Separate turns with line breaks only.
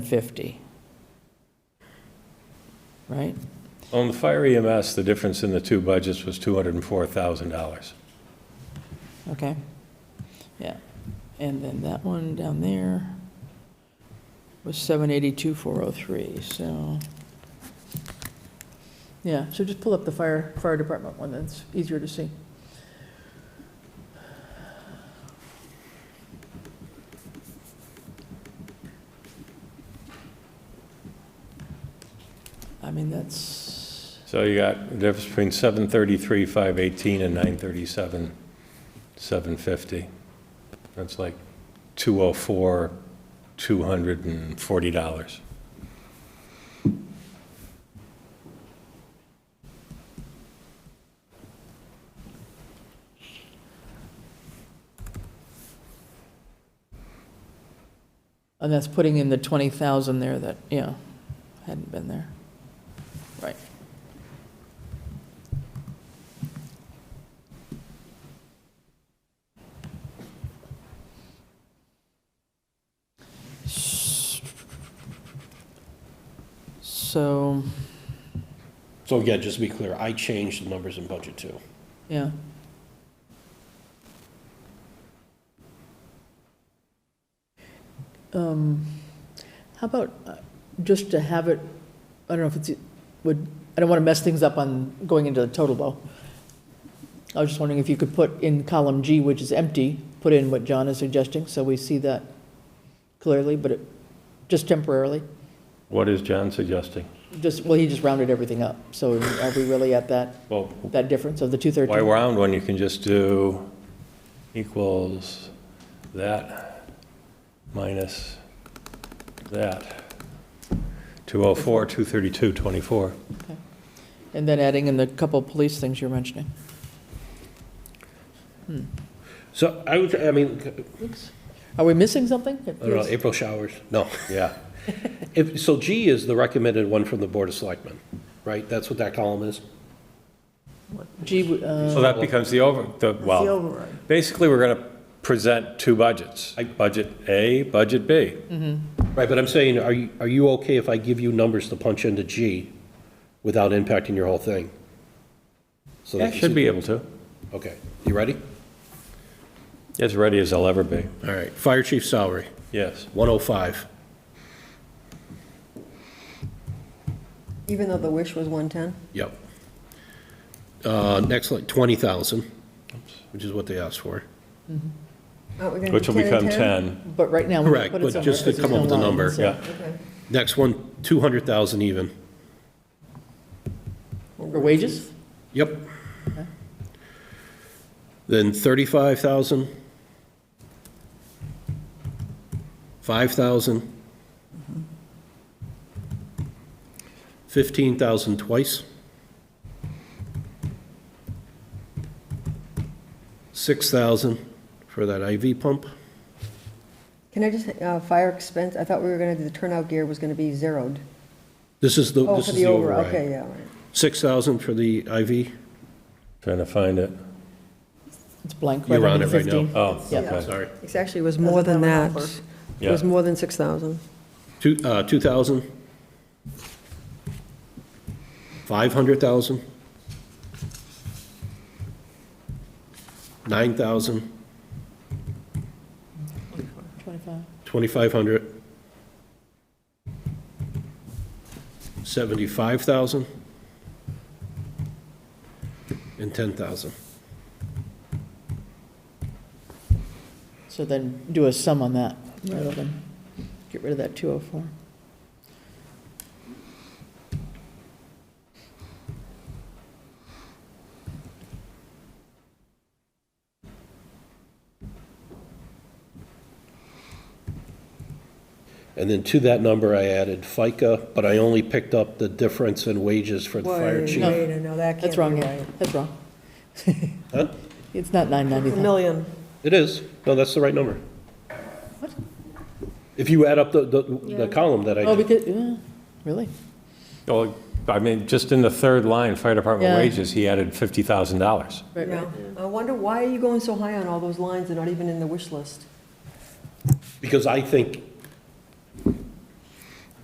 50. Right?
On the fire EMS, the difference in the two budgets was $204,000.
Okay. Yeah. And then that one down there was 782,403, so. Yeah, so just pull up the fire, fire department one, that's easier to see. I mean, that's,
So you got the difference between 733, 518, and 937, 750. That's like 204, $240.
and that's putting in the 20,000 there that, yeah, hadn't been there. Right. So,
So again, just to be clear, I changed the numbers in budget too.
yeah, Um, How about, uh, just to have it, I don't know if it's, would, I don't want to mess things up on going into the total though. I was just wondering if you could put in column G, which is empty, put in what John is suggesting, so we see that clearly, but it, just temporarily.
What is John suggesting?
Just, well, he just rounded everything up, so are we really at that,
Well,
that difference of the two
why
thirteen?
round when you can just do equals that minus that? 204, 232, 24.
And then adding in the couple police things you're mentioning.
So I would, I mean, I
Are we missing something?
don't know, April showers, no.
Yeah.
If, so G is the recommended one from the Board of Selectmen, right? That's what that column is?
Gee, uh,
So that becomes the over, the, well, basically, we're going to present two budgets, Budget A, Budget B.
Right, but I'm saying, are you, are you okay if I give you numbers to punch into G without impacting your whole thing? So
Yeah,
that you
should
see-
be able to,
Okay, you ready?
as ready as I'll ever be,
All right, fire chief salary,
yes.
105.
Even though the wish was 110?
Yep. Uh, Next, like 20,000, which is what they asked for.
Aren't we gonna do
Which will
10 and
become 10,
But right now, we
Correct,
put it
but
somewhere.
just to
'cause
come
there's
up
no
with a
line,
number,
so-
yeah.
Okay.
Next one, 200,000 even.
For wages?
Yep. Then 35,000. 5,000. 15,000 twice. 6,000 for that IV pump.
Can I just, uh, fire expense, I thought we were gonna do, the turnout gear was gonna be zeroed.
This is the,
Oh,
this
for
is the
over-
override.
Okay, yeah, all right.
6,000 for the IV.
trying to find it.
It's blank.
You're
right
on it
under
right now.
15.
Oh,
Yeah.
okay,
Sorry.
It actually was more than that. It
yeah.
was more than 6,000.
Two, uh, 2,000. 500,000. 9,000,
25.
2,500. 75,000. And 10,000.
So then do a sum on that, rather than get rid of that 204.
And then to that number, I added FICA, but I only picked up the difference in wages for the fire
Wait,
chief.
No.
wait, no, that
That's
can't
wrong,
be
yeah,
right.
that's wrong.
Huh?
It's not
A
990.
million.
It is. No, that's the right number.
What?
If you add up the, the, the column that I
Oh,
did.
because, yeah, really?
Well, I mean, just in the third line, fire department
Yeah.
wages, he added $50,000.
Right, right.
Yeah. I wonder, why are you going so high on all those lines? They're not even in the wish list.
Because I think